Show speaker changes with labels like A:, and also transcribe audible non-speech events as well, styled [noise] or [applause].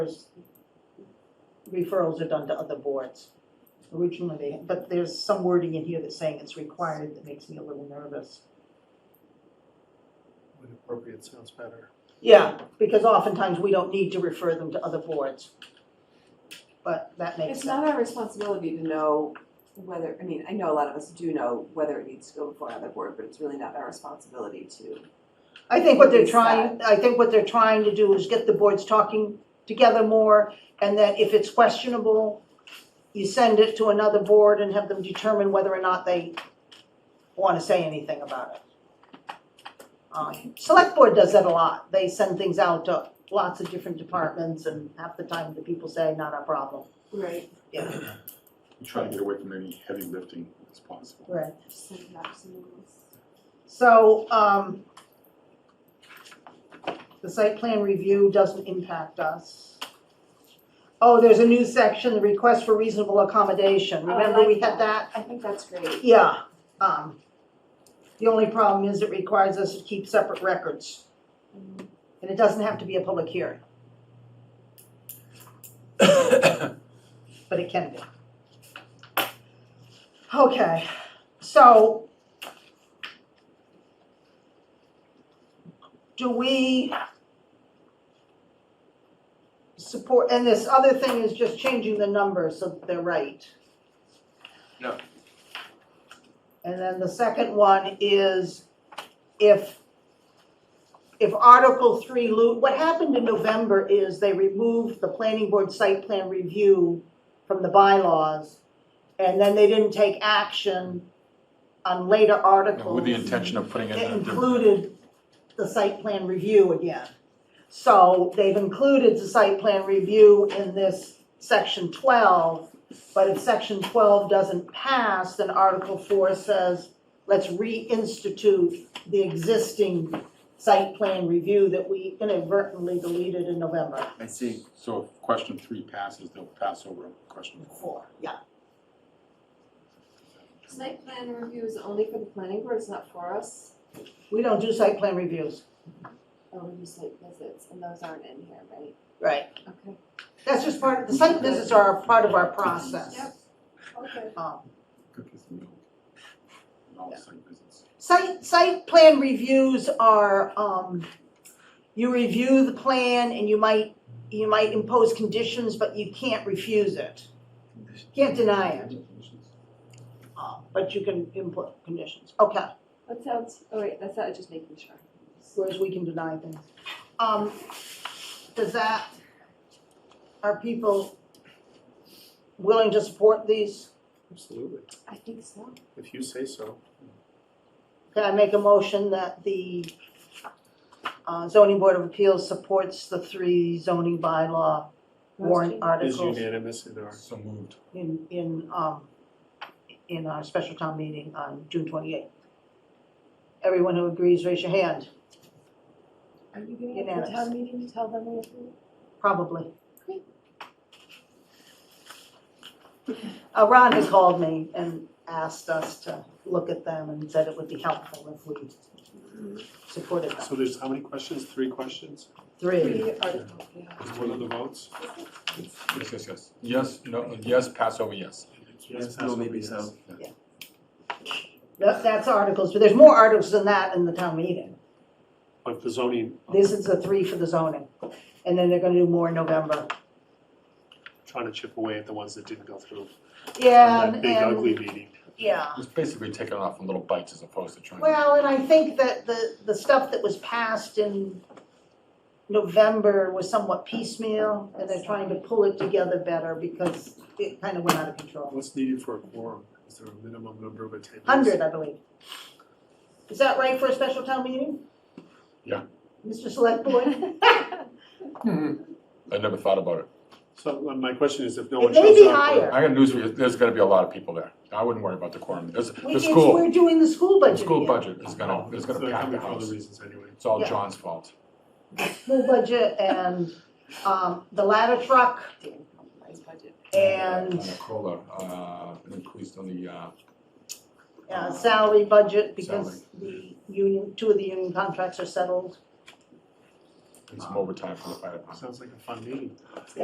A: referrals are done to other boards. Originally, they, but there's some wording in here that's saying it's required that makes me a little nervous.
B: When appropriate sounds better.
A: Yeah, because oftentimes we don't need to refer them to other boards. But that makes
C: It's not
A: sense.
C: our responsibility to know whether, I mean, I know a lot of us do know whether it needs to go before another board, but it's really not our responsibility to.
A: I think what they're
C: It's
A: trying, I think what they're trying to do is get the boards talking together more, and that if it's questionable, you send it to another board and have them determine whether or not they wanna say anything about it. Um, select board does that a lot, they send things out to lots of different departments, and half the time the people say, not our problem.
C: Right.
D: We Try to get away from any heavy lifting as possible.
A: Right.
C: Just send it out to someone else.
A: So, um, the site plan review doesn't impact us. Oh, there's a new section, the request for reasonable accommodation,
C: Oh, I
A: remember we
C: like
A: had that?
C: I think that's great.
A: Yeah, um, the only problem is it requires us to keep separate records,
C: Mhm.
A: and it doesn't have to be a public hearing. [coughs] But it can be. Okay, so. Do we support, and this other thing is just changing the numbers so that they're right.
E: No.
A: And then the second one is if, if Article three, lo- what happened in November is they removed the planning board site plan review from the bylaws, and then they didn't take action on later articles
D: With the intention of putting it
A: it
D: in.
A: included the site plan review again. So they've included the site plan review in this section twelve, but if section twelve doesn't pass, then article four says, let's reinstitute the existing site plan review that we inadvertently deleted in November
E: I see.
D: So if question three passes, they'll pass over question four.
A: four, yeah.
C: Site plan review is only for the planning board, it's not for us.
A: We don't do site plan reviews.
C: Oh, we do site visits, and those aren't in here, right?
A: Right.
C: Okay.
A: That's just part, the site visits are a part of our process.
C: Yep. Okay.
A: Um,
D: Cookies and milk. And all the site visits.
A: Site, site plan reviews are, um, you review the plan and you might, you might impose conditions, but you can't refuse it. Can't deny it, uh, but you can input conditions, okay,
C: That sounds, oh wait, that's not, just making sure.
A: whereas we can deny things. Um, does that, are people willing to support these?
B: Absolutely,
C: I think so.
B: if you say so.
A: Can I make a motion that the uh, zoning board of appeals supports the three zoning bylaw warrant
B: Is
A: articles
B: unanimous in our,
D: So moved.
A: in, in, um, in our special town meeting on June twenty-eighth? Everyone who agrees, raise your hand,
C: Are you gonna get to the town meeting to tell them we approve?
A: probably.
C: Great.
A: Uh, Ron has called me and asked us to look at them and said it would be helpful if we supported them.
B: so there's how many questions? Three questions?
A: Three,
C: Three articles, yeah.
B: Is one of the votes?
D: Yes, yes, yes. Yes, no, yes, pass over, yes.
E: Yes, no, maybe so.
A: That- that's articles, but there's more articles than that in the town meeting.
B: Of the zoning, I'm
A: This is the three for the zoning, and then they're gonna do more in November.
B: trying to chip away at the ones that didn't go through.
A: Yeah,
B: From that
A: Um, and,
B: big
A: and-
B: ugly meeting.
A: yeah.
D: It's basically taken off in little bites as opposed to trying. to-
A: Well, and I think that the, the stuff that was passed in November was somewhat piecemeal, and they're trying to pull it together better because it kind of went out of control.
B: What's needed for a quorum? Is there a minimum number of attendees?
A: Hundred, I believe. Is that right for a special town meeting?
D: Yeah.
A: Mr. Select Board?
D: I never thought about it.
B: So uh, my question is if no
A: It
B: one
A: may
B: shows
A: be
B: up.
A: higher.
D: I got news for you, there's gonna be a lot of people there. I wouldn't worry about the quorum. There's,
A: We-
D: the
A: it's-
D: school,
A: We're doing the school
D: the
A: budget
D: school
A: again.
D: budget is gonna, is gonna
B: They're
D: pack the
B: coming for other
D: house.
B: reasons anyway.
D: It's all
A: Yeah.
D: John's fault.
A: School budget and, um, the ladder truck
C: Damn compromised budget.
A: and
D: On the COLA, uh, increased on the, uh.
A: uh, salary budget because the union, two of the union contracts are settled.
F: and some overtime for the fire department.
D: Sounds like a fun meeting.